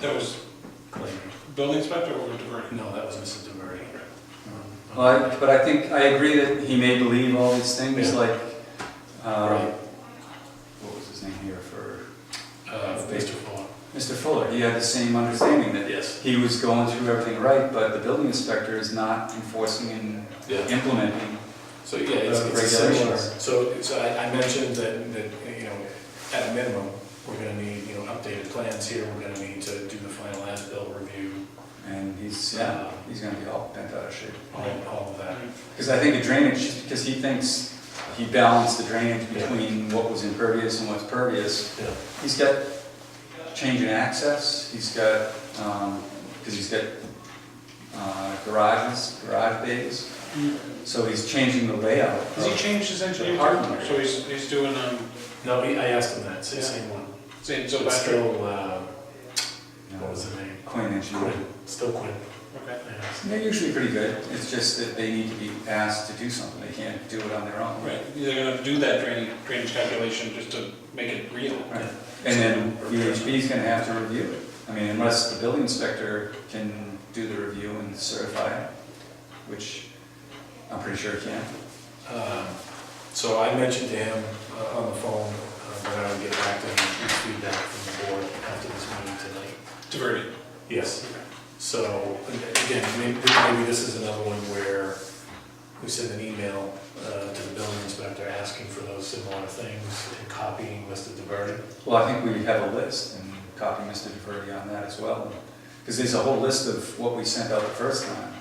That was Um, Claimed. building inspector or diverting? No, that was Mrs. DeVere. Um, Well, I- but I think, I agree that he may believe all these things, Yeah. like, uh, Right. what was his name here for, Uh, Mr. Fuller. Mr. Fuller, he had the same understanding that Yes. he was going through everything right, but the building inspector is not enforcing and Yeah, implementing. so yeah, it's Uh, it's a similar. regulations. So, so I, I mentioned that, that, you know, at a minimum, we're gonna need, you know, updated plans here, we're gonna need to do the final as-built review, And he's, Uh-huh. yeah, he's gonna be all bent out of shape. all, all of that. Because I think the drainage, just because he thinks he balanced the drainage between what was impervious and what's pervious. Yeah. He's got change in access, he's got, um, because he's got uh, garages, garage bays, so he's changing the layout. Has he of- changed his engineering? Apartment firm? area. So he's, he's doing, um, No, he- I asked him that, same- same one. saying so It's Patrick, still, uh, you what know, was the name? Queen engineering. Quinn, still Quinn. okay. Yeah. They're usually pretty good, it's just that they need to be asked to do something, they can't do it on their own. Right, they're gonna do that drainage, drainage calculation just to make it real. Right. And then UHB is gonna have to review it. I mean, unless the building inspector can do the review and certify it, which I'm pretty sure he can. Um, So I mentioned to him uh, on the phone uh, that I would get back to him with feedback from the board after this meeting tonight. Diverted. Yes. So again, maybe maybe this is another one where we send an email uh, to the building inspector asking for those similar things and copying Mr. DeVerde. Well, I think we have a list and copy Mr. DeVerde on that as well. Because there's a whole list of what we sent out the first time,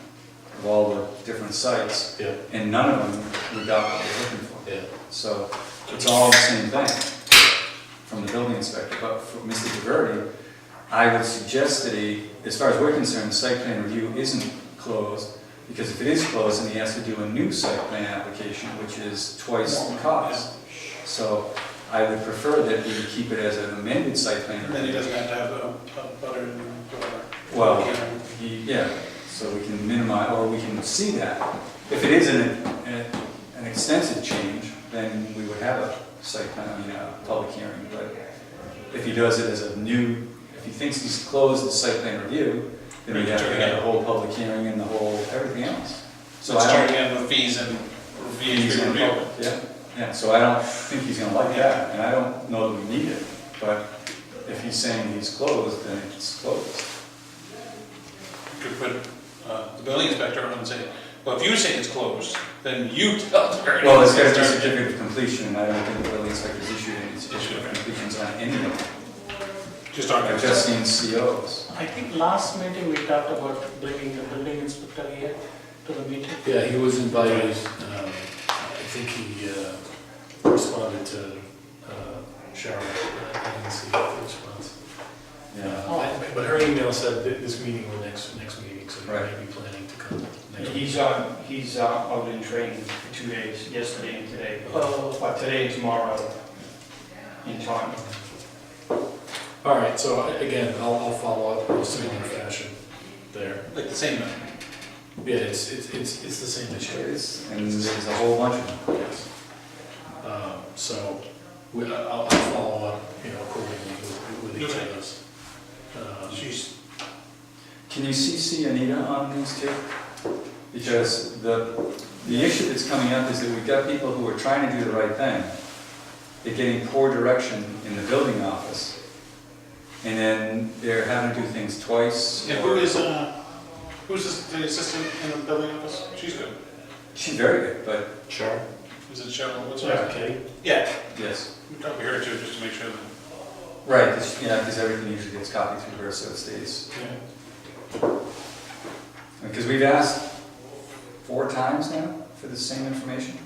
of all the different sites, Yeah. and none of them we got what we're looking for. Yeah. So it's all the same thing from the building inspector, but for Mr. DeVerde, I would suggest that he, as far as we're concerned, the site plan review isn't closed, because if it is closed, then he has to do a new site plan application, which is twice the cost. So I would prefer that we keep it as an amended site plan And then he review. doesn't have to have a, a butter and whatever. Well, he- yeah, so we can minimize, or we can see that. If it is an, an- an extensive change, then we would have a site plan, I mean, a public hearing, but if he does it as a new, if he thinks he's closed the site plan review, then we have to have the whole public hearing and the whole, everything else. So So I starting don't. out with fees and he's reviews, gonna- review. Yeah, yeah, so I don't think he's gonna like that, and I don't know that we need it, but if he's saying he's closed, then it's closed. could put uh, the building inspector on and say, well, if you say it's closed, then you tell the variance. Well, it's got to be certificate of completion, and I don't think the building inspector's issued any certificate of completions on any of them. Just on I've just seen COs. I think last meeting we talked about bringing the building inspector here to the meeting. Yeah, he was invited, um, I think he uh, responded to uh, Cheryl, I didn't see the response. Yeah. Uh, I- But her email said that this meeting or next, next meeting, so he may be planning to come next week. He's on, he's uh, out in training for two days, yesterday and today, Oh, but today and tomorrow in time. All right, so I- again, I'll, I'll follow up in a similar fashion there. Like the same, Yeah, it's, it's, it's it's the same There issue. is, and there's a whole bunch of them. Yes. Um, So we, I'll, I'll follow up, you know, accordingly with with each of us. Um, she's, Can you CC Anita on these two? Because the, the issue that's coming up is that we've got people who are trying to do the right thing. They're getting poor direction in the building office. And then they're having to do things twice. yeah, who is, uh, who's this- the assistant in the building office? She's good. She's very good, but Sure. Is it Cheryl? What's her? name? Okay. Yeah, yes. we talked to her too, just to make sure that. Right, 'cause, yeah, because everything usually gets copied through her, so it stays. Because we've asked four times now for the same information.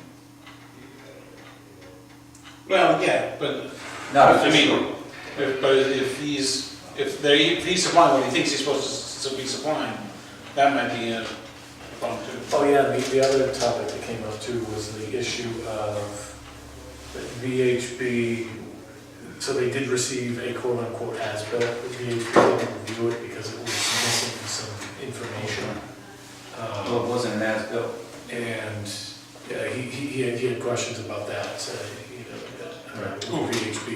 Well, yeah, but Not I officially. mean, if- But if he's, if they, if he's supplying what he thinks he's supposed to s- be supplying, that might be a problem too. Oh, yeah, the, the other topic that came up too was the issue of VHB, so they did receive a quote-unquote as-built, but VHB didn't review it because it was missing some information. Um, Well, it wasn't an as-built. And yeah, he, he, he had- he had questions about that, so, you know, that, uh, Right. VHB